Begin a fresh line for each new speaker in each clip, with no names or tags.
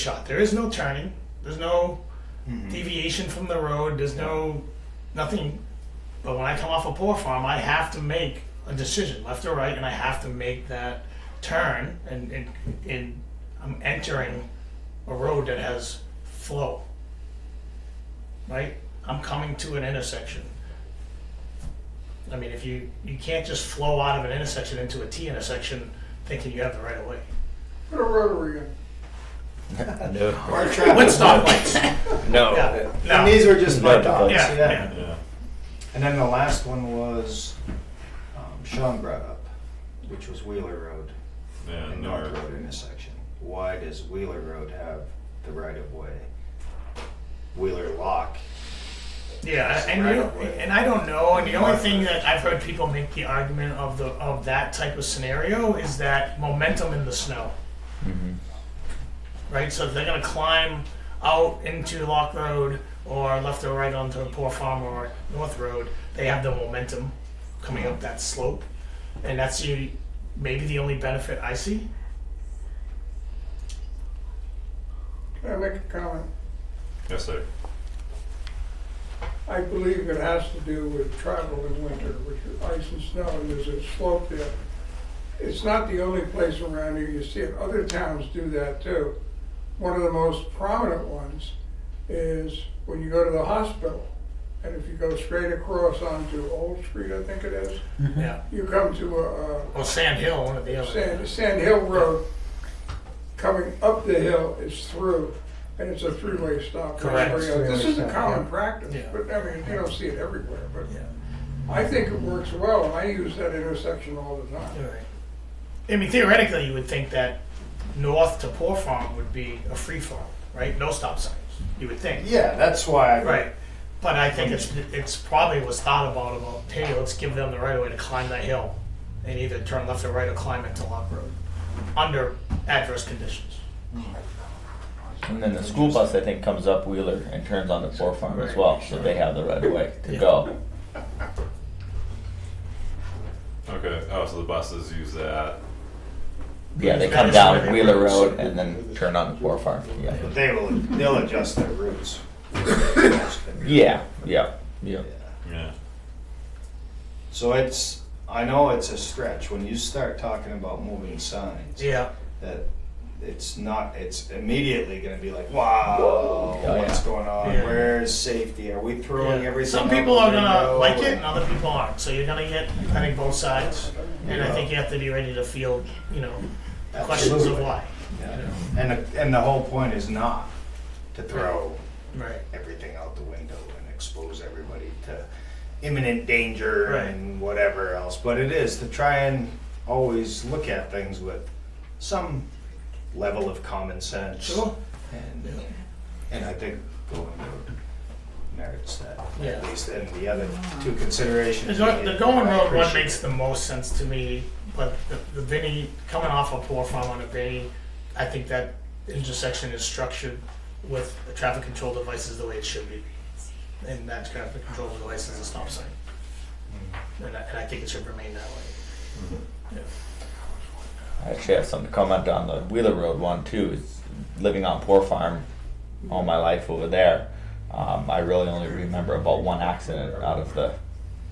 shot. There is no turning. There's no
Mm-hmm.
deviation from the road. There's no nothing. But when I come off a poor farm, I have to make a decision, left or right, and I have to make that turn. And and, and I'm entering a road that has flow. Right? I'm coming to an intersection. I mean, if you you can't just flow out of an intersection into a T intersection thinking you have the right of way.
Put a rotary in.
No,
Our traffic.
With stoplights.
no.
Yeah.
And
No.
these are just my
No.
thoughts,
Yeah,
yeah.
yeah.
And then the last one was, um, Sean brought up, which was Wheeler Road
Yeah,
and North Road intersection. Why does Wheeler Road have the right of way? Wheeler Lock,
Yeah, and you don't- and I don't know. And the only thing that I've heard people make the argument of the of that type of scenario is that momentum in the snow.
Mm-hmm.
Right, so if they're gonna climb out into Lock Road or left or right onto Poor Farm or North Road, they have the momentum coming up that slope, and that's the, maybe the only benefit I see.
Can I make a comment?
Yes, sir.
I believe it has to do with travel in winter, which is ice and snow, and there's a slope there. It's not the only place around here, you see it, other towns do that too. One of the most prominent ones is when you go to the hospital, and if you go straight across onto Old Street, I think it is,
Yeah,
you come to a, a
or Sand Hill, one of the other.
Mm-hmm. Sand, Sand Hill Road, coming up the hill is through, and it's a three-way stop.
Correct.
This is a common practice,
Yeah.
but I mean, you don't see it everywhere, but
Yeah.
I think it works well, and I use that intersection all the time.
Alright. I mean, theoretically, you would think that north to Poor Farm would be a free farm, right? No stop signs, you would think.
yeah, that's why. I-
Right. But I think it's, it's probably was thought about, about, hey, let's give them the right of way to climb that hill and either turn left or right or climb into Lock Road under adverse conditions.
And then the school bus, I think, comes up Wheeler and turns on the Poor Farm as well, so they have the right of way to
Yeah.
go.
Okay. Oh, so the buses use that.
Yeah, they
That
come
is where
down
they
Wheeler
were.
Road and then turn on the Poor Farm, yeah.
But they will, they'll adjust their routes.
Yeah, yeah, yeah.
Yeah.
So it's, I know it's a stretch, when you start talking about moving signs,
Yeah.
that it's not, it's immediately gonna be like, wow,
Oh,
what's
yeah.
going on?
Yeah.
Where's safety? Are we throwing
yeah.
everything?
Some
out
people are
the
gonna
window?"
like it and other people aren't, so you're gonna get, I think, both sides. And I
Yeah.
think you have to be ready to field, you know, questions of
Absolutely.
why.
Yeah. And, the- and the whole point is not to throw
Right.
everything out the window and expose everybody to imminent danger
Right.
and whatever else, but it is to try and always look at things with some level of common sense.
Sure.
And, uh, and I think going to merits that,
Yeah.
at least, and the other two considerations.
The, go- the going
I
road one
appreciate
makes the most sense to me, but the, the Vinny, coming off a poor farm on a Vinny, I think that intersection is structured with the traffic control devices the way it should be. And that traffic control device is a stop sign. And I, and I think it should remain that way. Mm-hmm.
I actually have something to comment on the Wheeler Road one too. Is living on Poor Farm all my life over there. Um, I really only remember about one accident out of the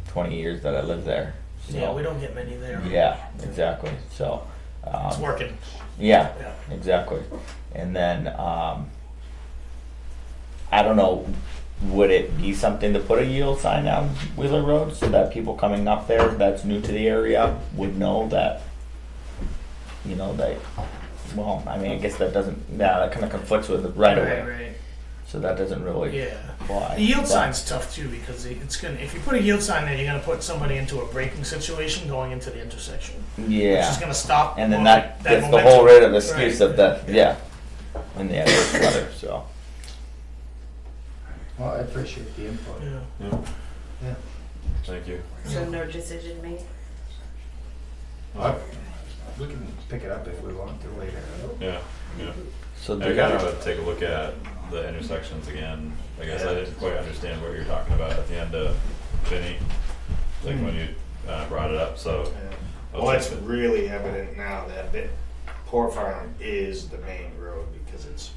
20 years that I lived there. So,
Yeah, we don't get many there.
Yeah, exactly. So, um,
It's working,
yeah,
yeah.
exactly. And then um, I don't know, would it be something to put a yield sign on Wheeler Road so that people coming up there that's new to the area would know that, you know, they, well, I mean, I guess that doesn't, yeah, that kind of conflicts with the right
Right,
away.
right,
So that doesn't really
yeah.
apply.
The yield
But-
sign's tough too, because it's gonna, if you put a yield sign there, you're gonna put somebody into a braking situation going into the intersection. Which is
Yeah.
gonna stop.
And then
mo-
that gets the
momentum.
whole rate of excuse
Right.
of the, yeah, and the adverse weather, so.
it. Well, I appreciate the input.
Yeah.
Yeah.
Yeah.
Thank you.
So no decision made?
Uh,
We can.
Pick it up if we want to later.
Yeah. Yeah.
So
I
do
gotta
that.
take a look at the intersections again. I guess I didn't quite understand what you're talking about at the end of Vinny, like when you uh, brought it up. So
Yeah.
I'll
Well,
check
it's
it.
really evident now that the Poor Farm is the main road because it's